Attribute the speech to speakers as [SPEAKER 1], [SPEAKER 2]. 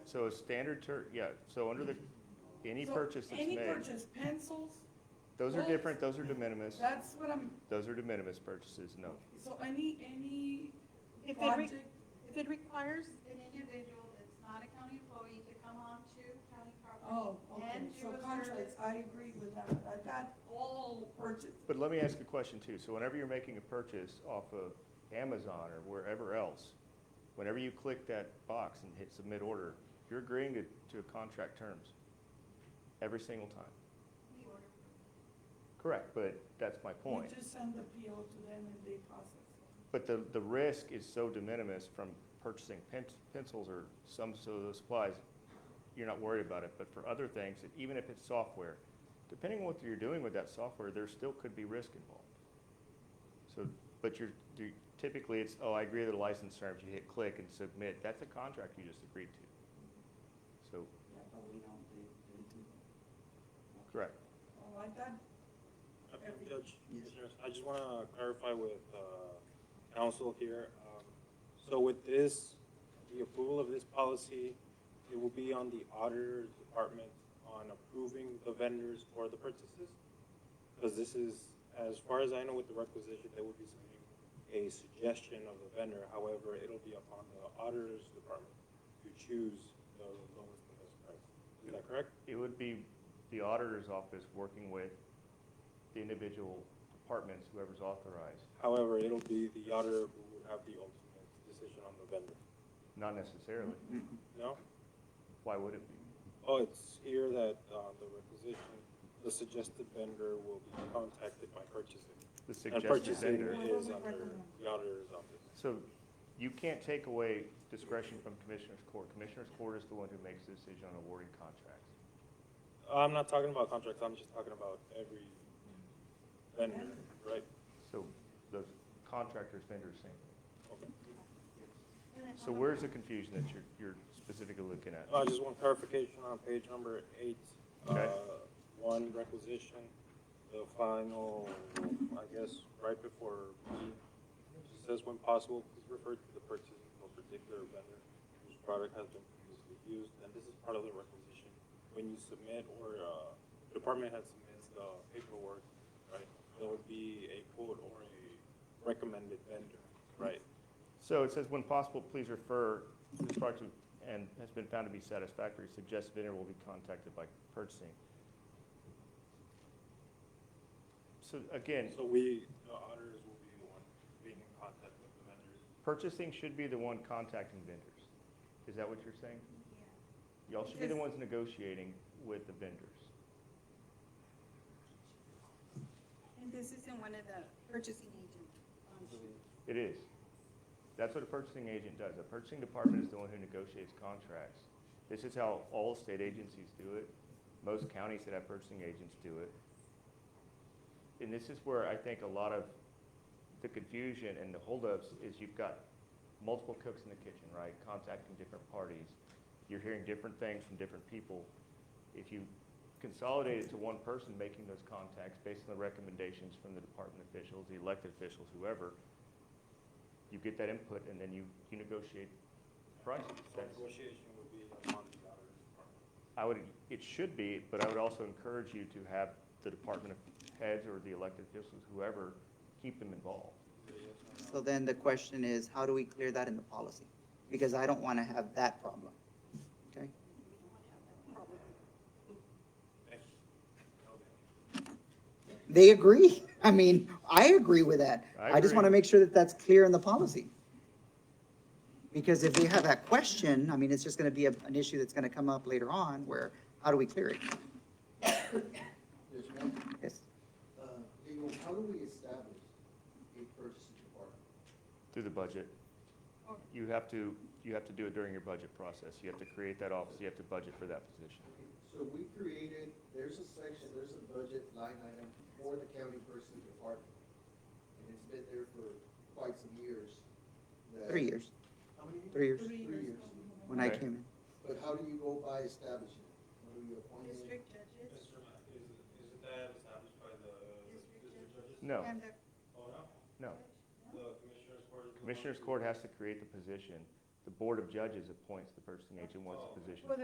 [SPEAKER 1] So a standard tur, yeah, so under the, any
[SPEAKER 2] So,
[SPEAKER 1] purchase that's
[SPEAKER 2] Any
[SPEAKER 1] made,
[SPEAKER 2] purchase, pencils,
[SPEAKER 1] those are
[SPEAKER 2] what?
[SPEAKER 1] different, those are de minimis,
[SPEAKER 2] that's what I'm,
[SPEAKER 1] those are de minimis purchases, no.
[SPEAKER 2] so any, any
[SPEAKER 3] If it, re-
[SPEAKER 2] project,
[SPEAKER 3] if it requires,
[SPEAKER 4] an individual that's not a county employee to come on to county property.
[SPEAKER 2] oh, okay,
[SPEAKER 4] And do
[SPEAKER 2] so
[SPEAKER 4] a
[SPEAKER 2] contracts,
[SPEAKER 4] service.
[SPEAKER 2] I agree with that, I got all purchase.
[SPEAKER 1] But let me ask a question too. So whenever you're making a purchase off of Amazon or wherever else, whenever you click that box and hit submit order, you're agreeing to, to contract terms every single time.
[SPEAKER 4] We order.
[SPEAKER 1] Correct, but that's my
[SPEAKER 2] You
[SPEAKER 1] point.
[SPEAKER 2] just send the PO to them and they process it.
[SPEAKER 1] But the, the risk is so de minimis from purchasing pen, pencils or some sort of supplies, you're not worried about it. But for other things, that even if it's software, depending on what you're doing with that software, there still could be risk involved. So, but you're, you- typically it's, oh, I agree to the license terms, you hit click and submit, that's a contract you just agreed to. So,
[SPEAKER 2] Yeah, but we don't, they, they do.
[SPEAKER 1] correct.
[SPEAKER 2] Oh, I thought,
[SPEAKER 5] Uh, Judge, Commissioners, I just want to clarify with uh, council here. Um, So with this, the approval of this policy, it will be on the auditor's department on approving the vendors for the purchases? Because this is, as far as I know with the requisition, they would be submitting a suggestion of the vendor. However, it'll be upon the auditor's department to choose the lowest and best price. Is that correct?
[SPEAKER 1] It would be the auditor's office working with the individual departments, whoever's authorized.
[SPEAKER 5] However, it'll be the auditor who would have the ultimate decision on the vendor.
[SPEAKER 1] Not necessarily.
[SPEAKER 5] No?
[SPEAKER 1] Why would it be?
[SPEAKER 5] Oh, it's here that, uh, the requisition, the suggested vendor will be contacted by purchasing.
[SPEAKER 1] The
[SPEAKER 5] And
[SPEAKER 1] suggested
[SPEAKER 5] purchasing
[SPEAKER 1] vendor.
[SPEAKER 5] is under the auditor's office.
[SPEAKER 1] So you can't take away discretion from Commissioner's Court. Commissioner's Court is the one who makes the decision on awarding contracts.
[SPEAKER 5] I'm not talking about contracts, I'm just talking about every vendor, right?
[SPEAKER 1] So the contractors, vendors, same. thing.
[SPEAKER 5] Okay.
[SPEAKER 1] So where's the confusion that you're, you're specifically looking at?
[SPEAKER 5] I Uh, just want clarification on page number eight.
[SPEAKER 1] Okay.
[SPEAKER 5] Uh, One requisition, the final, I guess, right before B, just says when possible, please refer to the purchase of a particular vendor whose product has been previously used, and this is part of the requisition. When you submit or, uh, department head submits the paperwork, right, there would be a quote or a recommended vendor, right?
[SPEAKER 1] So it says, when possible, please refer this project and has been found to be satisfactory. Suggested vendor will be contacted by purchasing. So again,
[SPEAKER 5] So we, the auditors will be the one being in contact with the vendors.
[SPEAKER 1] Purchasing should be the one contacting vendors. Is that what you're saying?
[SPEAKER 4] Yeah.
[SPEAKER 1] Y'all should be the ones negotiating with the vendors.
[SPEAKER 3] and this isn't one of the purchasing um, agents.
[SPEAKER 1] It is. That's what a purchasing agent does. A purchasing department is the one who negotiates contracts. This is how all state agencies do it. Most counties that have purchasing agents do it. And this is where I think a lot of the confusion and the holdups is you've got multiple cooks in the kitchen, right? Contacting different parties. You're hearing different things from different people. If you consolidate it to one person making those contacts based on the recommendations from the department officials, the elected officials, whoever, you get that input and then you, you negotiate prices.
[SPEAKER 5] So
[SPEAKER 1] That's-
[SPEAKER 5] negotiation would be among the auditor's department.
[SPEAKER 1] I would, it should be, but I would also encourage you to have the department heads or the elected officials, whoever, keep them involved.
[SPEAKER 6] So then the question is, how do we clear that in the policy? Because I don't want to have that problem, okay? They agree. I mean, I agree with that.
[SPEAKER 1] I
[SPEAKER 6] I just want to
[SPEAKER 1] agree.
[SPEAKER 6] make sure that that's clear in the policy. Because if they have that question, I mean, it's just going to be a- an issue that's going to come up later on where, how do we clear it?
[SPEAKER 7] There's one,
[SPEAKER 6] Yes.
[SPEAKER 7] uh, legal, how do we establish a purchasing department?
[SPEAKER 1] Through the budget. You have to, you have to do it during your budget process. You have to create that office, you have to budget for that position.
[SPEAKER 7] So we created, there's a section, there's a budget line item for the county purchasing department. And it's been there for quite some years. that-
[SPEAKER 6] Three years,
[SPEAKER 7] How many?
[SPEAKER 6] three years,
[SPEAKER 7] Three years.
[SPEAKER 6] when I
[SPEAKER 1] Okay.
[SPEAKER 6] came in.
[SPEAKER 7] But how do you go by establishing? it? How do you appoint it?
[SPEAKER 4] District judges
[SPEAKER 5] Is, is that established by the district judges?
[SPEAKER 1] No,
[SPEAKER 4] and the
[SPEAKER 5] Oh, no?
[SPEAKER 1] no.
[SPEAKER 5] The commissioners court? is the one
[SPEAKER 1] Commissioner's
[SPEAKER 5] who-
[SPEAKER 1] Court has to create the position. the board of judges appoints the purchasing agent once the position.
[SPEAKER 3] Well,